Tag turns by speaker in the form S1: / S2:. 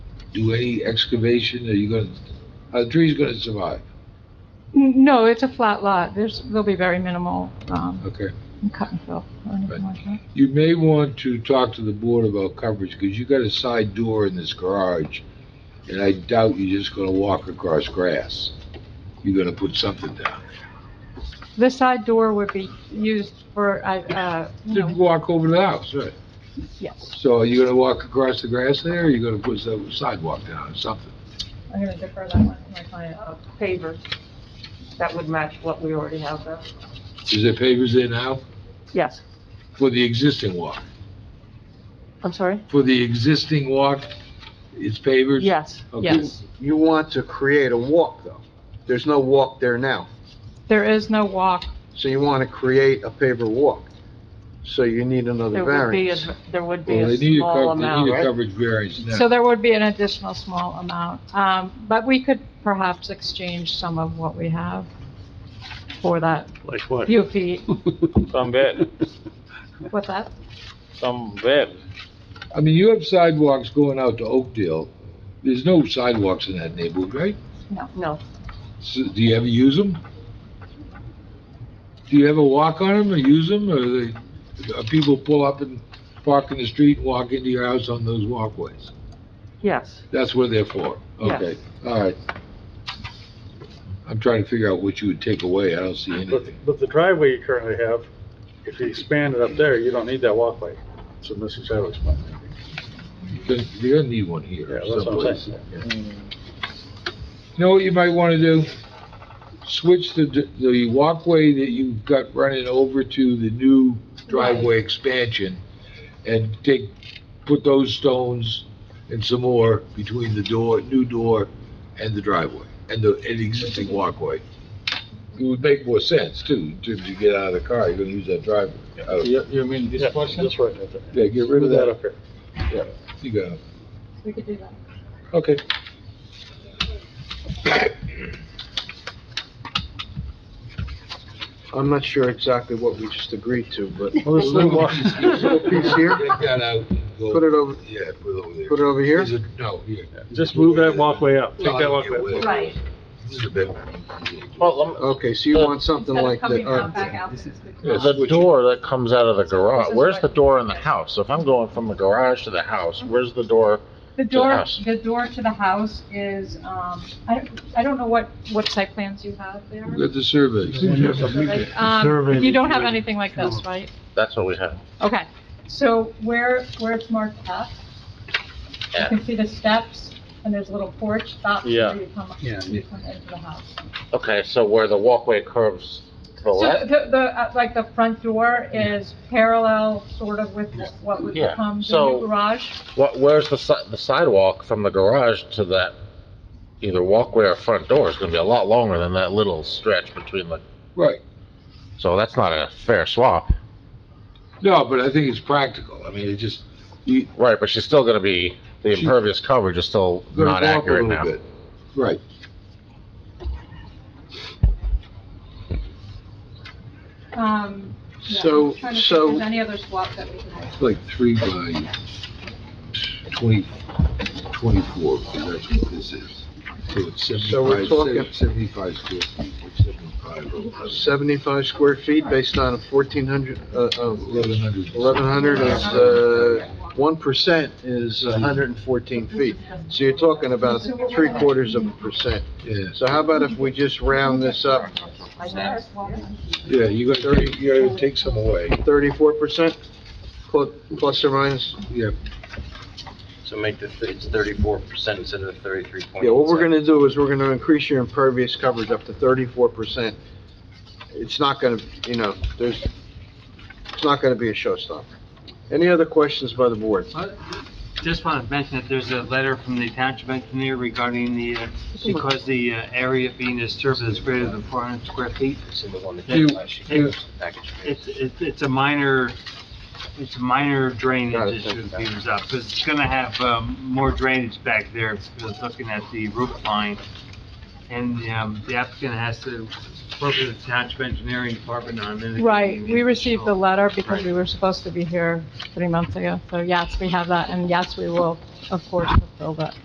S1: do any excavation? Are you gonna, are the trees gonna survive?
S2: N- No, it's a flat lot. There's, there'll be very minimal, um,
S1: Okay.
S2: cut and fill or anything like that.
S1: You may want to talk to the board about coverage, because you got a side door in this garage, and I doubt you're just gonna walk across grass. You're gonna put something down.
S2: The side door would be used for, I- uh, you
S1: Just
S2: know,
S1: walk over to the house, right?
S2: yes.
S1: So are you gonna walk across the grass there, or you gonna put some sidewalk down or something?
S2: I'm gonna defer that one to my client.
S3: uh, pavers that would match what we already have there.
S1: Is there pavers there now?
S3: Yes,
S1: For the existing walk?
S3: I'm sorry?
S1: For the existing walk, it's pavers?
S3: Yes,
S1: Okay.
S3: yes.
S4: You want to create a walk, though. There's no walk there now.
S2: There is no walk.
S4: So you want to create a paver walk. So you need another
S3: There would be,
S4: variance.
S3: a- there would be
S1: Well,
S3: a
S1: they need a
S3: small
S1: cov- they
S3: amount.
S1: need a
S4: right?
S1: coverage variance now.
S2: So there would be an additional small amount. Um, but we could perhaps exchange some of what we have for that
S5: Like what?
S2: few feet.
S5: Some bed,
S2: What's that?
S5: some bed.
S1: I mean, you have sidewalks going out to Oakdale. There's no sidewalks in that neighborhood, right?
S3: No,
S1: So, do you ever use them? Do you ever walk on them or use them, or they, uh, people pull up and park in the street and walk into your house on those walkways?
S3: yes.
S1: That's what they're for?
S3: Yes.
S1: Okay, all right. I'm trying to figure out what you would take away. I don't see
S6: But,
S1: anything.
S6: but the driveway you currently have, if you expand it up there, you don't need that walkway. So Mrs. Chadwick's point.
S1: You're gonna- You're gonna need one
S6: Yeah,
S1: here
S6: that's what I'm
S1: someplace.
S6: saying.
S1: You know what you might want to do? Switch the, the walkway that you've got running over to the new driveway expansion and take, put those stones and some more between the door, new door and the driveway and the, and the existing walkway. It would make more sense too, in terms of get out of the car, you're gonna use that driveway. Uh,
S6: You, you mean
S5: this portion?
S6: This right there.
S1: Yeah, get rid of
S6: Move
S1: that.
S6: up here.
S1: You got it.
S2: We could do that.
S1: Okay.
S4: I'm not sure exactly what we just agreed to, but
S6: Well, this little walk,
S1: Take
S6: this little piece here,
S1: that out. Go-
S4: put it over,
S1: Yeah, put it over there.
S4: put it over here.
S1: Is it- No, here.
S6: just move that walkway up. Take that walkway up.
S2: Right.
S1: This is a bit.
S5: Well,
S4: Okay, so you want something
S2: Instead of
S4: like
S2: coming
S4: that.
S2: out
S4: uh,
S2: back out. this is
S1: Yeah.
S2: the-
S7: The door that comes out of the garage,
S2: This is
S7: where's
S2: right.
S7: the door in the house? If I'm going from the garage to the house,
S2: Mm-hmm.
S7: where's the door?
S2: The
S7: the
S2: door,
S7: house.
S2: the door to the house is, um, I, don't- I don't know what, what site plans you have there.
S1: Get the surveys.
S2: Like, Um, you don't have anything like this, right?
S7: That's what we have.
S2: Okay, so where, where it's marked F, you can see the steps, and there's a little porch, that's
S5: Yeah.
S2: where you come, you come into the house.
S7: Okay, so where the walkway curves to the
S2: So
S7: left?
S2: the, the, uh, like, the front door is parallel sort of with what would
S7: Yeah,
S2: become the
S7: so-
S2: new garage.
S7: What, where's the si- the sidewalk from the garage to that either walkway or front door is gonna be a lot longer than that little stretch between the,
S1: Right.
S7: so that's not a fair swap.
S1: No, but I think it's practical. I mean, it just, you
S7: Right, but she's still gonna be, the
S1: She-
S7: impervious coverage is still not
S1: gotta walk a
S7: accurate
S1: little
S7: now.
S1: bit. Right.
S2: Um, yeah, I'm trying
S4: So,
S2: to think if
S4: so,
S2: there's any other swap that we can have.
S1: It's like three by twenty, twenty-four, because that's what this is. So it's
S4: So we're
S1: seventy-five,
S4: talking-
S1: seventy-five square feet, or seventy-five,
S4: seventy-five square feet based on a fourteen hundred, uh, uh,
S1: eleven hundred.
S4: eleven hundred is, uh, one percent is hundred and fourteen feet. So you're talking about three quarters of a percent.
S1: Yeah,
S4: So how about if we just round this up
S1: yeah, you gotta, take- you gotta take some away.
S4: thirty-four percent, plus or minus?
S1: Yeah,
S8: So make the, th- it's thirty-four percent instead of thirty-three point.
S4: Yeah, what we're gonna do is we're gonna increase your impervious coverage up to thirty-four percent. It's not gonna, you know, there's, it's not gonna be a showstopper. Any other questions by the board?
S8: Just want to mention that there's a letter from the township engineer regarding the, uh, because the uh, area being disturbed is greater than four hundred square feet.
S9: It's in the one that
S8: You-
S9: did last year,
S8: you-
S9: the package.
S8: It's, it's, it's a minor, it's a minor
S4: Got it,
S8: drainage
S4: thank
S8: issue
S4: you.
S8: that comes up, 'cause it's gonna have, um, more drainage back there, because looking at the roof line. And, um, the applicant has to work with the township engineering department on it.
S2: Right, we received the letter because
S8: Right.
S2: we were supposed to be here three months ago, so yes, we have that, and yes, we will, of course, fulfill that.